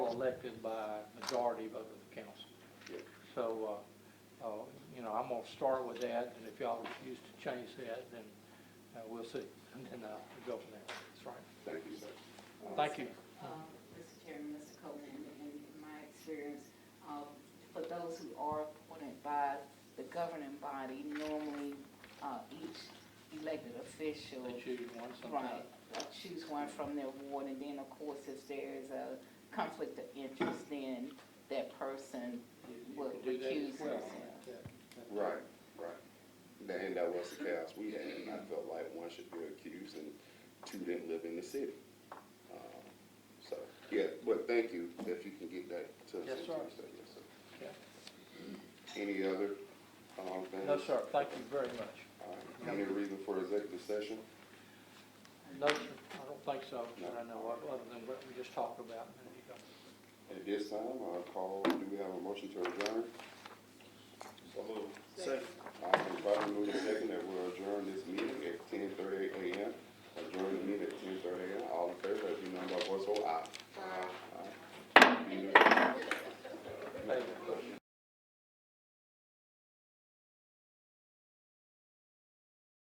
elected by majority vote of the council. Yes. So, uh, uh, you know, I'm gonna start with that, and if y'all refuse to change that, then, uh, we'll see, and then, uh, we'll go from there. That's right. Thank you, sir. Thank you. Uh, Mr. Chairman, Mr. Copeland, in my experience, um, for those who are appointed by the governing body, normally uh, each elected official, They choose one sometime. right, uh, choose one from their ward, and then, of course, if there is a conflict of interest, then that person You- you will can do that as recuse well. themselves. Yeah. Right, right. Tha- And that was the chaos we had, and I felt like one should be accused and two didn't live in the city. Um, So, yeah, but thank you, if you can get that to us. Yes, on sir. Tuesday, yes, sir. Okay. Any other, um, things? No, sir, thank you very much. All right. Any reason for executive session? No, sir, I don't think so, that I know, of, other than what we just talked about. a minute ago. At this time, I'll call, do we have a motion to adjourn? So moved. Second. All right, probably move second that we'll adjourn this meeting at ten thirty AM. Adjourn the meeting at ten thirty AM. All in favor, let it be known by voice, vote aye.